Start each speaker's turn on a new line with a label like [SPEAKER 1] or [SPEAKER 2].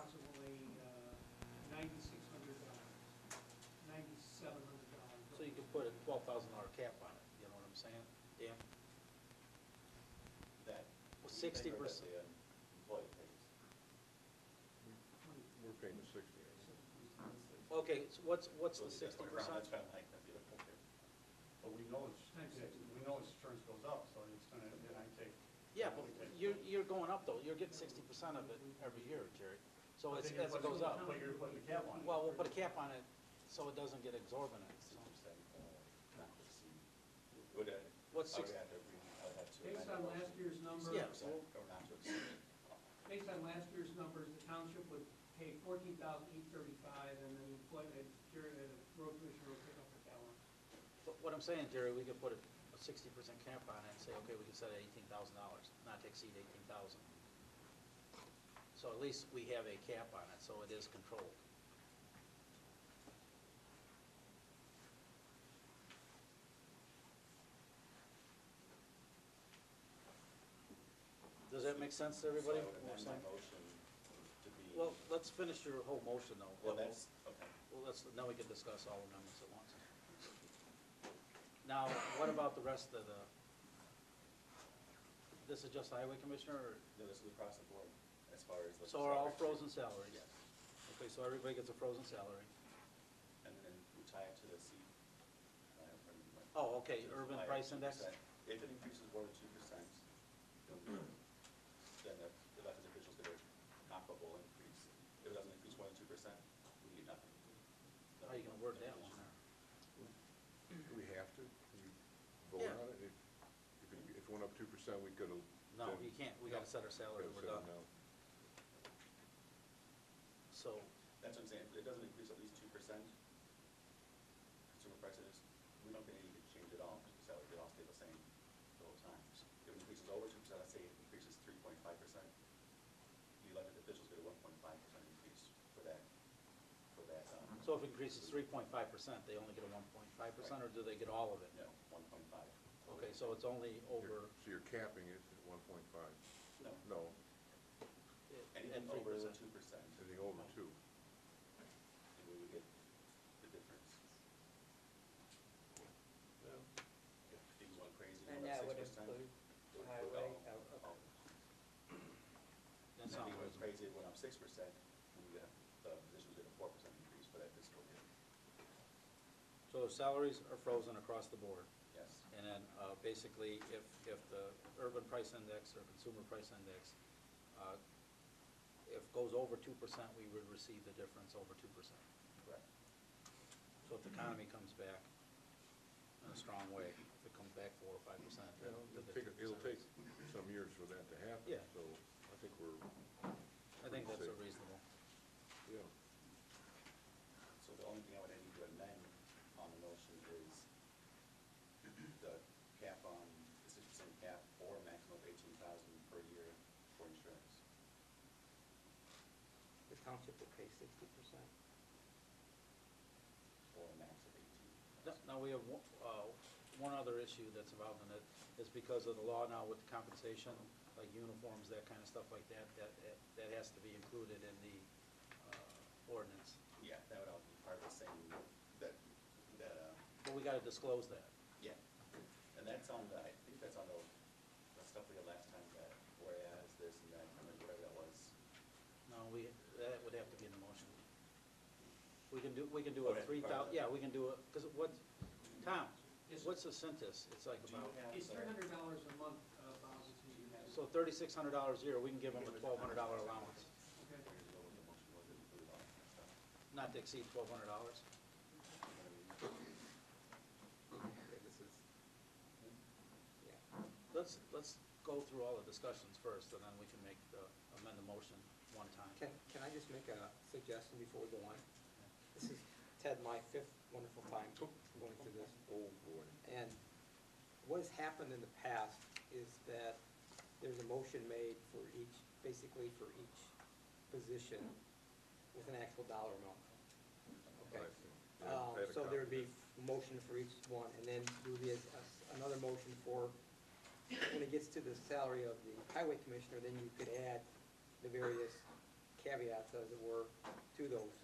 [SPEAKER 1] uh,
[SPEAKER 2] Sixty percent.
[SPEAKER 3] Employee pays.
[SPEAKER 4] We're paying the sixty. aren't we?
[SPEAKER 2] Okay, so what's, what's
[SPEAKER 3] So
[SPEAKER 2] the
[SPEAKER 3] that's
[SPEAKER 2] sixty
[SPEAKER 3] why we're-
[SPEAKER 2] percent?
[SPEAKER 3] That's kind of like, that's the other point there.
[SPEAKER 5] But we know it's, we know it's insurance goes up, so it's gonna, then I take.
[SPEAKER 2] Yeah, but you're, you're going up though, you're getting sixty percent of it every year, Jerry. So it's, as it goes up,
[SPEAKER 5] But you're putting a cap on it.
[SPEAKER 2] well, we'll put a cap on it so it doesn't get exorbitant, so.
[SPEAKER 3] Percent, uh, not to exceed. Would, uh,
[SPEAKER 2] What's
[SPEAKER 3] I
[SPEAKER 2] six-
[SPEAKER 3] would have to agree, I would have to.
[SPEAKER 1] Based on last year's number,
[SPEAKER 2] Yeah.
[SPEAKER 3] Or not to exceed.
[SPEAKER 1] based on last year's numbers, the township would pay fourteen thousand eight thirty-five, and then the employment, Jerry, the road commissioner would pick up the balance.
[SPEAKER 2] But what I'm saying, Jerry, we could put a sixty percent cap on it and say, okay, we can set it at eighteen thousand dollars, not to exceed eighteen thousand. So at least we have a cap on it, so it is controlled. Does that make sense to everybody?
[SPEAKER 3] So I would amend my motion to be.
[SPEAKER 2] Well, let's finish your whole motion though.
[SPEAKER 3] Well, that's, okay.
[SPEAKER 2] Well, let's, now we can discuss all amendments at once. Now, what about the rest of the, this is just the highway commissioner, or,
[SPEAKER 3] No, this is across the board, as far as. like,
[SPEAKER 2] so are all
[SPEAKER 3] salary.
[SPEAKER 2] frozen salaries?
[SPEAKER 3] Yes.
[SPEAKER 2] Okay, so everybody gets a frozen salary.
[SPEAKER 3] And then we tie it to the C. uh, from, like,
[SPEAKER 2] Oh, okay,
[SPEAKER 3] to the
[SPEAKER 2] urban
[SPEAKER 3] supplier,
[SPEAKER 2] price index?
[SPEAKER 3] 2%. If it increases more than two percent, then the the elected officials get a comparable increase. If it doesn't increase more than two percent, we get nothing.
[SPEAKER 2] How are you gonna word that one?
[SPEAKER 4] Do we have to? Can we vote
[SPEAKER 2] Yeah.
[SPEAKER 4] on it? If, if it- if it went up two percent, we could have.
[SPEAKER 2] No, you can't, we gotta set our salary, we're done. So,
[SPEAKER 3] That's what I'm saying, if it doesn't increase at least two percent, consumer price index, we don't get any change at all, because the salary could all stay the same the whole time. If it increases over two percent, I say it increases three point five percent, the elected officials get a one point five percent increase for that, for that, um,
[SPEAKER 2] so if it increases three point five percent, they only get a one point five percent, or do they get all of it?
[SPEAKER 3] no, one point five.
[SPEAKER 2] Okay, so it's only over,
[SPEAKER 4] So you're capping it at one point five?
[SPEAKER 3] No,
[SPEAKER 4] No,
[SPEAKER 3] anything
[SPEAKER 2] at three
[SPEAKER 3] over
[SPEAKER 2] percent.
[SPEAKER 3] two percent,
[SPEAKER 4] anything over two.
[SPEAKER 3] and we would get the difference. If things went crazy,
[SPEAKER 6] And
[SPEAKER 3] went
[SPEAKER 6] that
[SPEAKER 3] up
[SPEAKER 6] would
[SPEAKER 3] 6%,
[SPEAKER 6] include
[SPEAKER 3] it would
[SPEAKER 6] highway,
[SPEAKER 3] all-
[SPEAKER 6] oh, okay.
[SPEAKER 3] all
[SPEAKER 2] That
[SPEAKER 3] And
[SPEAKER 2] sounds
[SPEAKER 3] if it went
[SPEAKER 2] reasonable.
[SPEAKER 3] crazy, it went up six percent, we, uh, the position did a four percent increase for that fiscal year.
[SPEAKER 2] So salaries are frozen across the board.
[SPEAKER 3] Yes.
[SPEAKER 2] And then, uh, basically, if, if the urban price index or consumer price index, uh, if goes over two percent, we would receive the difference over two percent.
[SPEAKER 3] Correct.
[SPEAKER 2] So if the economy comes back in a strong way, if it comes back four or five percent, then
[SPEAKER 4] Well,
[SPEAKER 2] the
[SPEAKER 4] It'll
[SPEAKER 2] fifty percent.
[SPEAKER 4] take, it'll take some years for that to happen.
[SPEAKER 2] Yeah.
[SPEAKER 4] So I think we're,
[SPEAKER 2] I think that's a reasonable.
[SPEAKER 4] yeah.
[SPEAKER 3] So the only thing I would need to amend on the motion is the cap on, the six percent cap or maximum of eighteen thousand per year for insurance.
[SPEAKER 6] The township would pay sixty percent.
[SPEAKER 3] Or a max of eighteen.
[SPEAKER 2] No- Now, we have one- uh, one other issue that's involved in it, is because of the law now with compensation, like uniforms, that kind of stuff like that, that, that has to be included in the uh, ordinance.
[SPEAKER 3] Yeah, that would all be part of the same, that, that, uh,
[SPEAKER 2] But we gotta disclose that.
[SPEAKER 3] yeah. And that's on the, I think that's on the, the stuff we had last time, that whereas this and that, or whatever that was.
[SPEAKER 2] No, we, that would have to be in the motion. We can do, we can do a
[SPEAKER 3] Okay.
[SPEAKER 2] three thou, yeah, we can do a, because what, Tom,
[SPEAKER 1] Yes, sir.
[SPEAKER 2] what's the census? It's like
[SPEAKER 3] Do you
[SPEAKER 2] about,
[SPEAKER 3] have
[SPEAKER 1] It's
[SPEAKER 3] the-
[SPEAKER 1] three hundred dollars a month, uh, Bob, is who you have.
[SPEAKER 2] so thirty-six hundred dollars a year, we can give them a twelve hundred dollar allowance,
[SPEAKER 1] Okay.
[SPEAKER 2] not to exceed twelve hundred dollars.
[SPEAKER 6] This is, yeah.
[SPEAKER 2] Let's, let's go through all the discussions first, and then we can make the, amend the motion one time.
[SPEAKER 6] Can, can I just make a suggestion before we go on? This is, Ted, my fifth wonderful time going through this.
[SPEAKER 4] Oh, boy.
[SPEAKER 6] And what has happened in the past is that there's a motion made for each, basically for each position with an actual dollar amount. Okay?
[SPEAKER 4] Right. Yeah,
[SPEAKER 6] Um,
[SPEAKER 4] I had a
[SPEAKER 6] so
[SPEAKER 4] copy.
[SPEAKER 6] there would be a motion for each one, and then there would be a, a- another motion for, when it gets to the salary of the highway commissioner, then you could add the various caveats, as it were,